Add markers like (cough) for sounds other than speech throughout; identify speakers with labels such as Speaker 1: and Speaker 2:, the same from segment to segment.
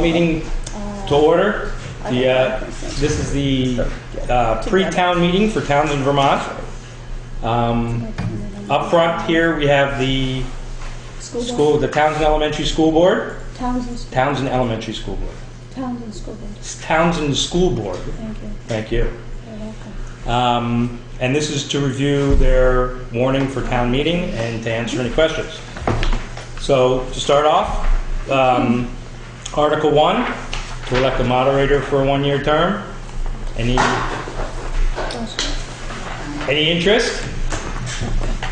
Speaker 1: meeting to order. The, uh, this is the uh, pre-town meeting for towns in Vermont. Um, Up front here, we have the school, the Townsend Elementary School Board,
Speaker 2: Townsend, Sch-
Speaker 1: Townsend Elementary School Board,
Speaker 2: Townsend School Board.
Speaker 1: It's Townsend School Board,
Speaker 2: Thank you.
Speaker 1: thank you.
Speaker 2: You're welcome.
Speaker 1: Um, And this is to review their warning for town meeting and to answer any questions. So to start off, um, Article 1, to elect a moderator for a one-year term. Any, any interest?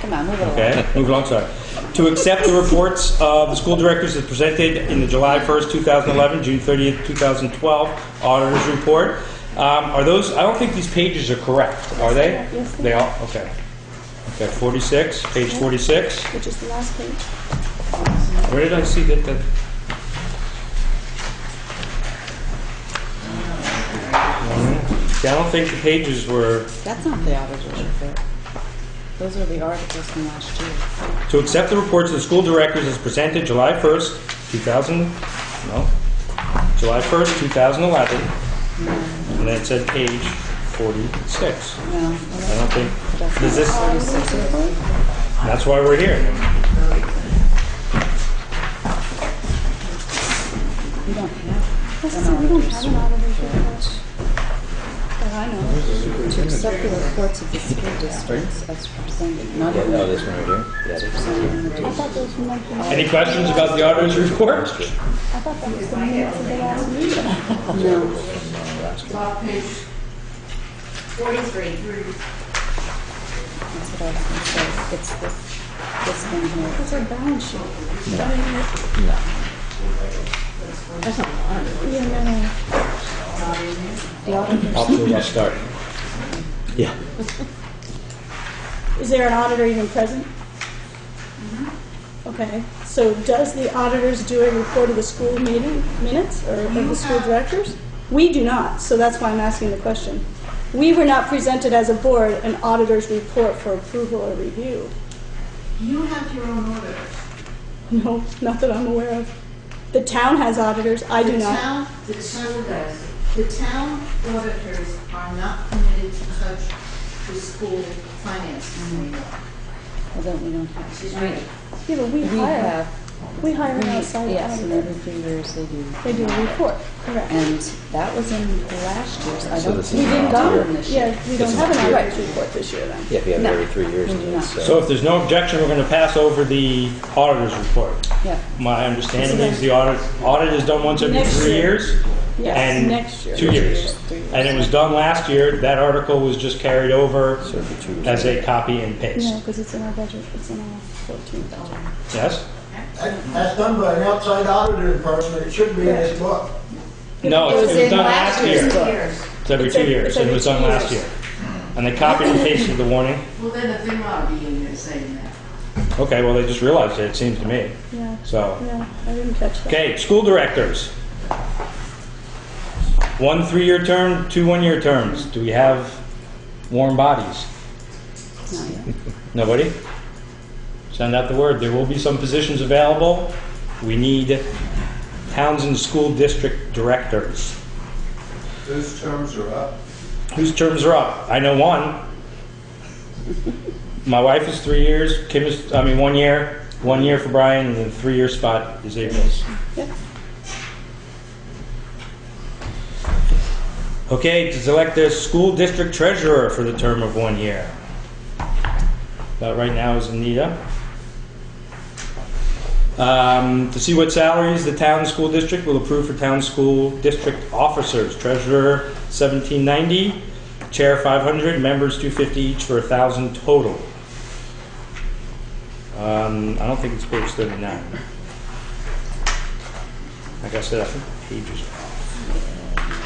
Speaker 3: Come on, move it along.
Speaker 1: Okay, move along, sorry. To accept the reports of the school directors as presented in the July 1st, 2011, June 30th, 2012 auditor's report. Um, Are those, I don't think these pages are correct, are they?
Speaker 2: Yes, they
Speaker 1: They all, okay. Okay, 46, page 46.
Speaker 2: Which is the last page.
Speaker 1: Where did I see that, that? Yeah, I don't think the pages were,
Speaker 3: That's not the auditor's report. Those are the articles from last year.
Speaker 1: to accept the reports of the school directors as presented July 1st, 2000, no, July 1st, 2011, and then it said page 46.
Speaker 3: No,
Speaker 1: I don't think,
Speaker 3: that's
Speaker 1: is this,
Speaker 3: forty-six.
Speaker 1: that's why we're here.
Speaker 3: We don't have
Speaker 2: That's it, we don't have an auditor's report. That I know. of.
Speaker 3: to accept the reports of the school districts as presented, not in
Speaker 4: No,
Speaker 3: the,
Speaker 4: this one right here.
Speaker 3: as presented in the
Speaker 2: I
Speaker 3: district.
Speaker 2: thought those were meant to be-
Speaker 1: Any questions about the auditor's report?
Speaker 2: I thought that was the minutes of the last meeting.
Speaker 3: No,
Speaker 5: Well, page forty-three.
Speaker 3: that's what I was gonna say. It's this, this one here.
Speaker 2: That's our balance sheet. Yeah, no, no.
Speaker 3: The auditor,
Speaker 1: Off to a rough start. Yeah.
Speaker 2: Is there an auditor even present?
Speaker 5: Mm-hmm.
Speaker 2: Okay, so does the auditors do a report of the school meeting minutes or of the school directors? We do not, so that's why I'm asking the question. We were not presented as a board an auditor's report for approval or review.
Speaker 5: You have your own auditors.
Speaker 2: No, (laughs) not that I'm aware of. The town has auditors, I do
Speaker 5: The
Speaker 2: not.
Speaker 5: town, the town does. The town auditors are not permitted to touch the school finances anymore.
Speaker 3: well, then we don't have.
Speaker 5: She's right.
Speaker 2: Yeah, but we
Speaker 3: We
Speaker 2: hire,
Speaker 3: have,
Speaker 2: we hire an outside
Speaker 3: yes, and
Speaker 2: auditor.
Speaker 3: every three years they do.
Speaker 2: They do a report, correct.
Speaker 3: And that was in last year's. I
Speaker 4: So
Speaker 3: don't,
Speaker 4: this is
Speaker 3: we didn't
Speaker 4: not
Speaker 3: go
Speaker 4: here.
Speaker 3: on this year.
Speaker 2: Yeah, we don't
Speaker 4: is
Speaker 2: have an
Speaker 4: not-
Speaker 2: auditor's report this year then.
Speaker 4: Yeah, if you have it
Speaker 3: No. Mm-hmm.
Speaker 4: every three years.
Speaker 3: We do
Speaker 4: it
Speaker 3: not.
Speaker 4: is,
Speaker 1: So if there's no objection, we're going to pass over the auditor's report.
Speaker 3: Yeah.
Speaker 1: My understanding is the audit, audit is done once every
Speaker 2: Next
Speaker 1: three
Speaker 2: year.
Speaker 1: years,
Speaker 2: Yes,
Speaker 1: And
Speaker 2: next year.
Speaker 1: two years. And it was done last year, that article was just carried over
Speaker 4: So if you choose.
Speaker 1: as a copy and
Speaker 2: No,
Speaker 1: paste.
Speaker 2: because it's in our budget, it's in our 14 budget.
Speaker 1: Yes?
Speaker 6: That- That's done by an outside auditor person, it should be in this book.
Speaker 1: No, it was done last year.
Speaker 5: Two
Speaker 1: It's
Speaker 5: years.
Speaker 1: every
Speaker 2: It's
Speaker 1: two
Speaker 2: every-
Speaker 1: years,
Speaker 2: it's
Speaker 1: and it
Speaker 2: every
Speaker 1: was done
Speaker 2: two
Speaker 1: last year.
Speaker 2: years.
Speaker 1: And they copied and pasted the warning.
Speaker 5: Well, then the thing ought to be in there saying that.
Speaker 1: Okay, well, they just realized it, it seems to me.
Speaker 2: Yeah,
Speaker 1: So,
Speaker 2: yeah, I didn't catch that.
Speaker 1: okay, school directors. One three-year term, two one-year terms. Do we have warm bodies?
Speaker 3: Not yet.
Speaker 1: Nobody? Send out the word. There will be some positions available. We need Townsend School District Directors.
Speaker 7: Those terms are up.
Speaker 1: Whose terms are up? I know one. My wife is three years, Kim is, I mean, one year, one year for Brian, and the three-year spot is April's.
Speaker 2: Yep.
Speaker 1: Okay, to select the school district treasurer for the term of one year. That right now is Anita. Um, To see what salaries the town school district will approve for town school district officers. Treasurer, 1790, chair, 500, members, 250 each for 1,000 total. Um, I don't think it's page 39. Like I said, I think pages.